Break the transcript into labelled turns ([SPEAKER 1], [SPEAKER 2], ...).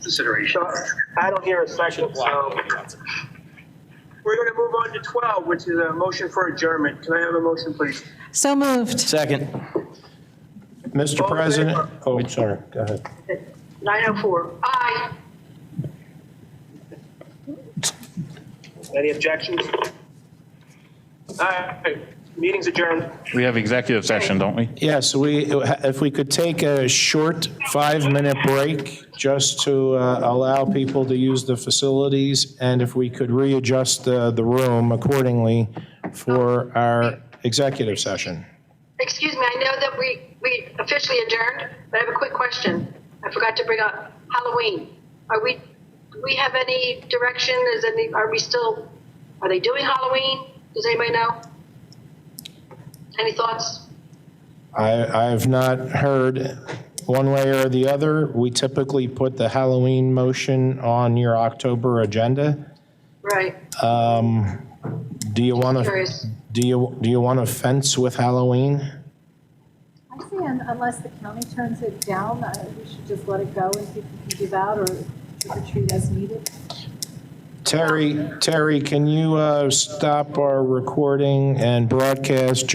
[SPEAKER 1] consideration.
[SPEAKER 2] So I don't hear a second, so we're going to move on to 12, which is a motion for adjournment. Can I have a motion, please?
[SPEAKER 3] So moved.
[SPEAKER 4] Second.
[SPEAKER 5] Mr.
[SPEAKER 2] All in
[SPEAKER 5] President,
[SPEAKER 2] favor?
[SPEAKER 5] oh, sorry, go ahead.
[SPEAKER 6] 904, aye.
[SPEAKER 2] Any objections? All right, meeting's adjourned.
[SPEAKER 7] We have executive session, don't we?
[SPEAKER 5] Yes, we, if we could take a short five-minute break just to uh, allow people to use the facilities, and if we could readjust the, the room accordingly for our executive session.
[SPEAKER 6] Excuse me, I know that we, we officially adjourned, but I have a quick question. I forgot to bring up Halloween. Are we, do we have any direction? Is any, are we still, are they doing Halloween? Does anybody know? Any thoughts?
[SPEAKER 5] I, I have not heard one way or the other. We typically put the Halloween motion on your October agenda.
[SPEAKER 6] Right,
[SPEAKER 5] Do you want to,
[SPEAKER 6] curious.
[SPEAKER 5] do you, do you want to fence with Halloween?
[SPEAKER 8] I say un- unless the county turns it down, I- we should just let it go and see if we can give out or trick or treat as needed.
[SPEAKER 5] Terry, Terry, can you uh, stop our recording and broadcast